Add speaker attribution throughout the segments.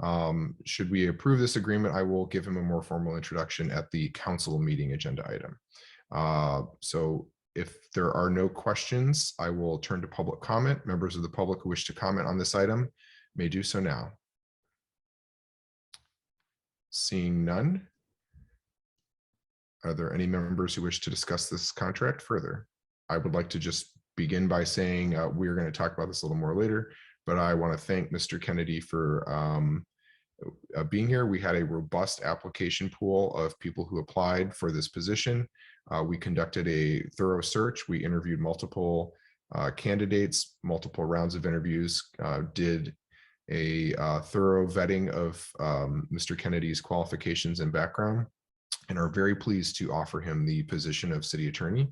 Speaker 1: Um, should we approve this agreement, I will give him a more formal introduction at the council meeting agenda item. Uh, so if there are no questions, I will turn to public comment. Members of the public who wish to comment on this item may do so now. Seeing none. Are there any members who wish to discuss this contract further? I would like to just begin by saying, uh, we're going to talk about this a little more later, but I want to thank Mr. Kennedy for, um, uh, being here. We had a robust application pool of people who applied for this position. Uh, we conducted a thorough search. We interviewed multiple uh, candidates, multiple rounds of interviews, uh, did a uh, thorough vetting of um, Mr. Kennedy's qualifications and background, and are very pleased to offer him the position of city attorney.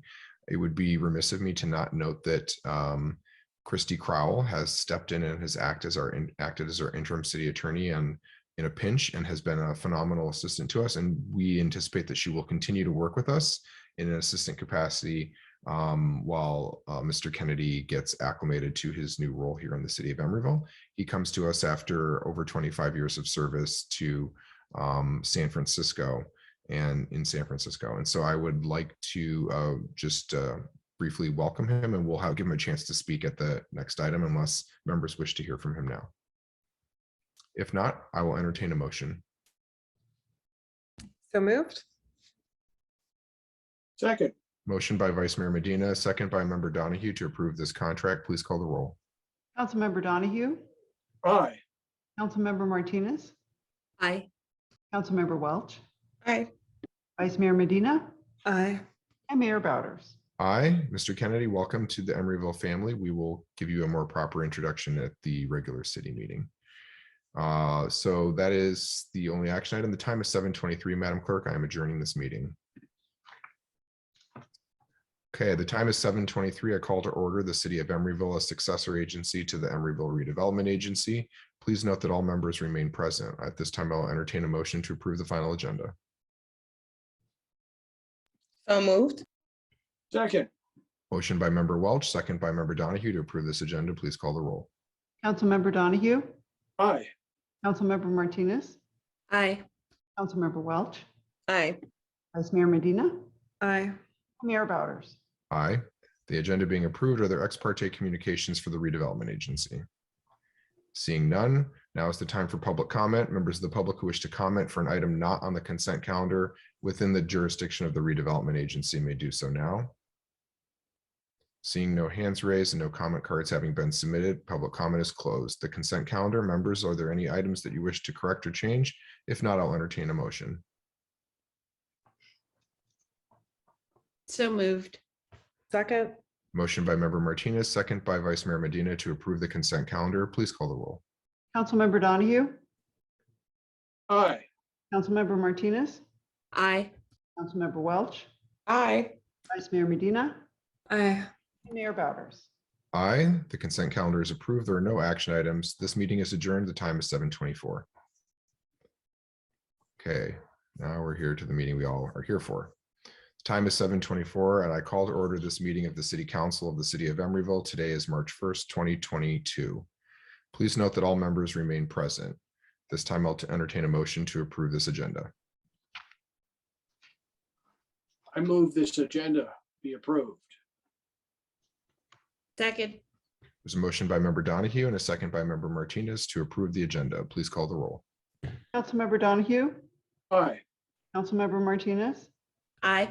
Speaker 1: It would be remiss of me to not note that um, Christy Crowell has stepped in and has acted as our in- acted as our interim city attorney and in a pinch and has been a phenomenal assistant to us. And we anticipate that she will continue to work with us in an assistant capacity um, while uh, Mr. Kennedy gets acclimated to his new role here in the city of Emeryville. He comes to us after over 25 years of service to um, San Francisco and in San Francisco. And so I would like to uh, just uh, briefly welcome him and we'll have, give him a chance to speak at the next item unless members wish to hear from him now. If not, I will entertain a motion.
Speaker 2: So moved?
Speaker 3: Second,
Speaker 1: Motion by Vice Mayor Medina, second by Member Donahue to approve this contract. Please call the roll.
Speaker 4: Councilmember Donahue,
Speaker 3: aye.
Speaker 4: Councilmember Martinez,
Speaker 5: Aye.
Speaker 4: Councilmember Welch,
Speaker 5: Aye.
Speaker 4: Vice Mayor Medina,
Speaker 2: Aye.
Speaker 4: and Mayor Bowders.
Speaker 1: Aye, Mr. Kennedy, welcome to the Emeryville family. We will give you a more proper introduction at the regular city meeting. Uh, So that is the only action item. The time is 7:23, Madam Clerk. I am adjourning this meeting. Okay, the time is 7:23. I call to order the City of Emeryville, a successor agency to the Emeryville Redevelopment Agency. Please note that all members remain present. At this time, I'll entertain a motion to approve the final agenda.
Speaker 5: So moved?
Speaker 3: Second,
Speaker 1: Motion by Member Welch, second by Member Donahue to approve this agenda. Please call the roll.
Speaker 4: Councilmember Donahue,
Speaker 3: aye.
Speaker 4: Councilmember Martinez,
Speaker 5: Aye.
Speaker 4: Councilmember Welch,
Speaker 5: Aye.
Speaker 4: Vice Mayor Medina,
Speaker 2: Aye.
Speaker 4: Mayor Bowders.
Speaker 1: Aye. The agenda being approved, are there ex parte communications for the redevelopment agency? Seeing none, now is the time for public comment. Members of the public who wish to comment for an item not on the consent calendar within the jurisdiction of the redevelopment agency may do so now. Seeing no hands raised and no comment cards having been submitted, public comment is closed. The consent calendar, members, are there any items that you wish to correct or change? If not, I'll entertain a motion.
Speaker 5: So moved.
Speaker 2: Second?
Speaker 1: Motion by member Martinez, second by Vice Mayor Medina to approve the consent calendar. Please call the roll.
Speaker 4: Councilmember Donahue,
Speaker 3: Aye.
Speaker 4: Councilmember Martinez,
Speaker 5: Aye.
Speaker 4: Councilmember Welch,
Speaker 5: Aye.
Speaker 4: Vice Mayor Medina,
Speaker 2: Aye.
Speaker 4: and Mayor Bowders.
Speaker 1: Aye, the consent calendar is approved. There are no action items. This meeting is adjourned. The time is seven twenty-four. Okay, now we're here to the meeting we all are here for. The Time is seven twenty-four and I call to order this meeting of the City Council of the City of Emeryville. Today is March first, twenty twenty-two. Please note that all members remain present. This time I'll entertain a motion to approve this agenda.
Speaker 3: I move this agenda be approved.
Speaker 5: Second.
Speaker 1: There's a motion by member Donahue and a second by member Martinez to approve the agenda. Please call the roll.
Speaker 4: Councilmember Donahue,
Speaker 3: Aye.
Speaker 4: Councilmember Martinez,
Speaker 5: Aye.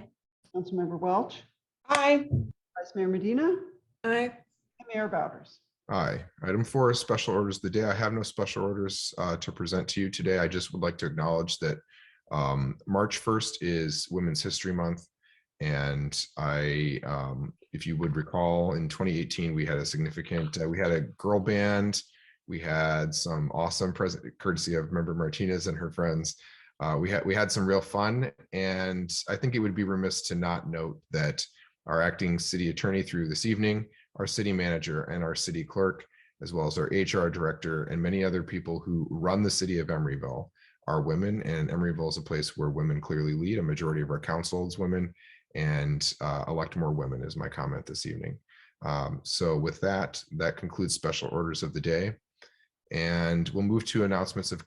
Speaker 4: Councilmember Welch,
Speaker 5: Aye.
Speaker 4: Vice Mayor Medina, and
Speaker 5: Aye.
Speaker 4: Mayor Bowders.
Speaker 1: Aye. Item four is special orders of the day. I have no special orders uh, to present to you today. I just would like to acknowledge that um, March 1st is Women's History Month. And I, um, if you would recall, in 2018, we had a significant, uh, we had a girl band. We had some awesome present courtesy of member Martinez and her friends. Uh, We had, we had some real fun. And I think it would be remiss to not note that our acting city attorney through this evening our city manager and our city clerk, as well as our HR director and many other people who run the city of Emeryville are women and Emeryville is a place where women clearly lead. A majority of our council is women and uh, elect more women is my comment this evening. Um, so with that, that concludes special orders of the day. And we'll move to announcements of